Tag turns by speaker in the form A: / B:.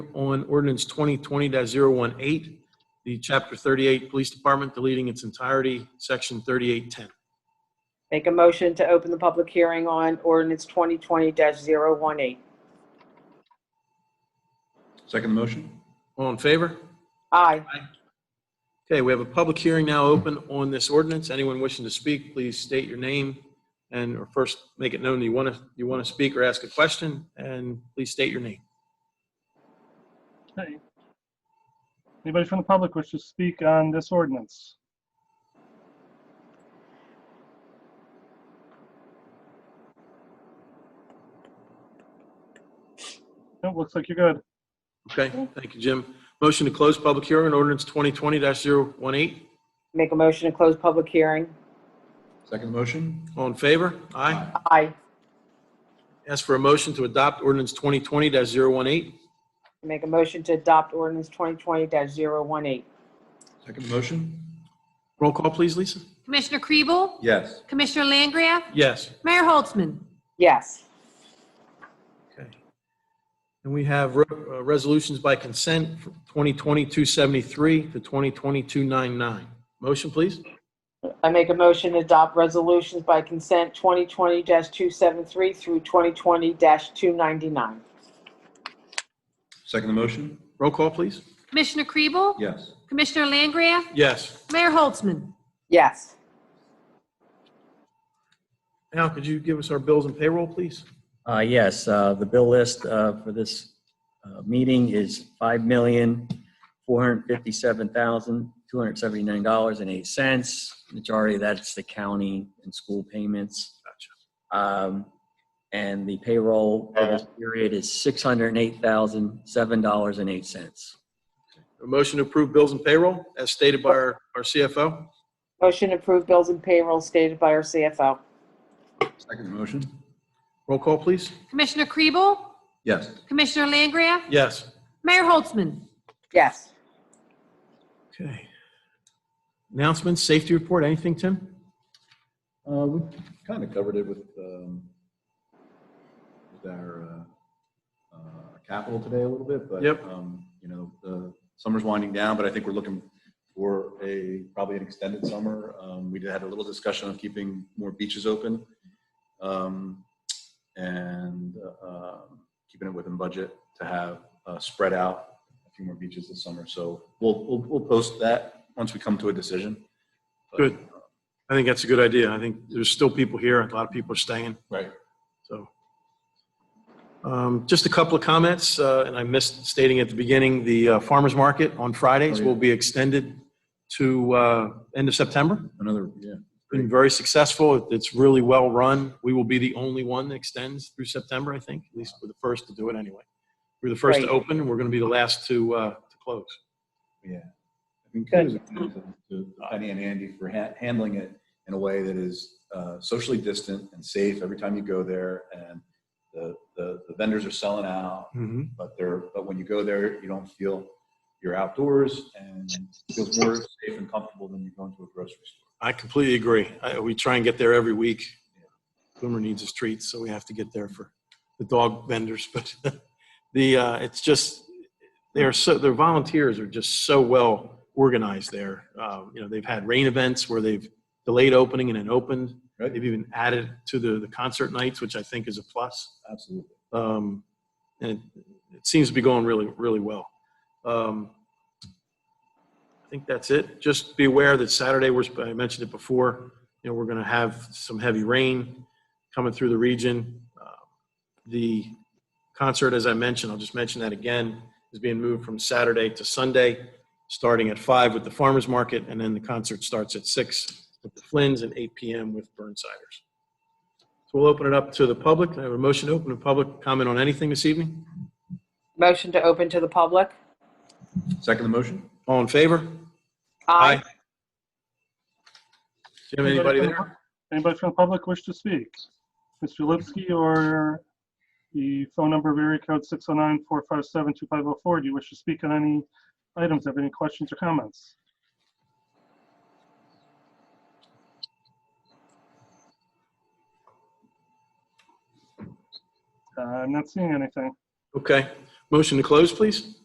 A: on ordinance twenty twenty 18 the chapter thirty-eight Police Department deleting its entirety, section thirty-eight ten.
B: Make a motion to open the public hearing on ordinance 2020-018.
C: Second the motion?
A: All in favor?
B: Aye.
A: Okay, we have a public hearing now open on this ordinance. Anyone wishing to speak, please state your name and or first make it known that you want to, you want to speak or ask a question, and please state your name.
D: Okay. Anybody from the public wish to speak on this ordinance? Nope, looks like you're good.
A: Okay, thank you, Jim. Motion to close public hearing on ordinance twenty twenty 18
B: Make a motion to close public hearing.
C: Second the motion?
A: All in favor? Aye.
B: Aye.
A: Ask for a motion to adopt ordinance twenty twenty 18
B: Make a motion to adopt ordinance 2020-018.
C: Second the motion?
A: Roll call, please, Lisa.
E: Commissioner Kriebel?
C: Yes.
E: Commissioner Langgraf?
A: Yes.
E: Mayor Holtzman?
B: Yes.
A: Okay. And we have re- uh, resolutions by consent, from 2020-273 to 2020-299. Motion, please?
B: I make a motion to adopt resolutions by consent 2020-273 through 2020-299.
C: Second the motion?
A: Roll call, please.
E: Commissioner Kriebel?
C: Yes.
E: Commissioner Langgraf?
A: Yes.
E: Mayor Holtzman?
B: Yes.
A: Al, could you give us our bills and payroll, please?
F: Uh, Yes, uh, the bill list uh, for this uh, meeting is $5,457,279.08. Majority of that's the county and school payments. Um, And the payroll for this period is $608,007.08.
A: A motion to approve bills and payroll as stated by our our CFO?
B: Motion to approve bills and payroll stated by our CFO.
C: Second the motion?
A: Roll call, please.
E: Commissioner Kriebel?
C: Yes.
E: Commissioner Langgraf?
A: Yes.
E: Mayor Holtzman?
B: Yes.
A: Okay. Announcements, safety report, anything, Tim?
C: Uh, we kind of covered it with, um, with our, uh, uh, capital today a little bit, but.
A: Yep.
C: Um, you know, the summer's winding down, but I think we're looking for a, probably an extended summer. Um, we did had a little discussion of keeping more beaches open. Um, and, uh, um, keeping it within budget to have, uh, spread out a few more beaches this summer. So we'll, we'll, we'll post that once we come to a decision. But,
A: Good. I think that's a good idea. I think there's still people here, and a lot of people are staying.
C: Right.
A: So, um, just a couple of comments, uh, and I missed stating at the beginning, the uh, farmer's market on Fridays
C: Oh, yeah.
A: will be extended to, uh, end of September.
C: Another, yeah.
A: Been very successful. It- It's really well run. We will be the only one that extends through September, I think. At least we're the first to do it anyway. We're the first to
B: Right.
A: open, and we're going to be the last to, uh, to close.
C: Yeah. I mean, kudos to to Penny and Andy for ha- handling it in a way that is uh, socially distant and safe every time you go there. And the, the, the vendors are selling out,
A: Mm-hmm.
C: but they're, but when you go there, you don't feel you're outdoors and it feels more safe and comfortable than you going to a grocery store.
A: I completely agree. I, we try and get there every week. Boomer needs his treats, so we have to get there for the dog vendors. But the uh, it's just they are so their volunteers are just so well organized there. Uh, you know, they've had rain events where they've delayed opening and then opened.
C: Right.
A: They've even added to the the concert nights, which I think is a plus.
C: Absolutely.
A: Um, and it, it seems to be going really, really well. Um, I think that's it. Just be aware that Saturday, we're, sp- I mentioned it before, you know, we're going to have some heavy rain coming through the region. Uh, The concert, as I mentioned, I'll just mention that again, is being moved from Saturday to Sunday, starting at five with the farmer's market, and then the concert starts at six with the Flynn's and eight PM with Burnsiders. So we'll open it up to the public. Can I have a motion to open to public comment on anything this evening?
B: Motion to open to the public.
C: Second the motion?
A: All in favor? Jim, anybody
D: from the pub-
A: there?
D: Anybody from the public wish to speak? Mr. Lipsky or the phone number of area code 609-457-2504, do you wish to speak on any items? Have any questions or comments? Uh, I'm not seeing anything. Uh,
A: Okay. Motion to close, please?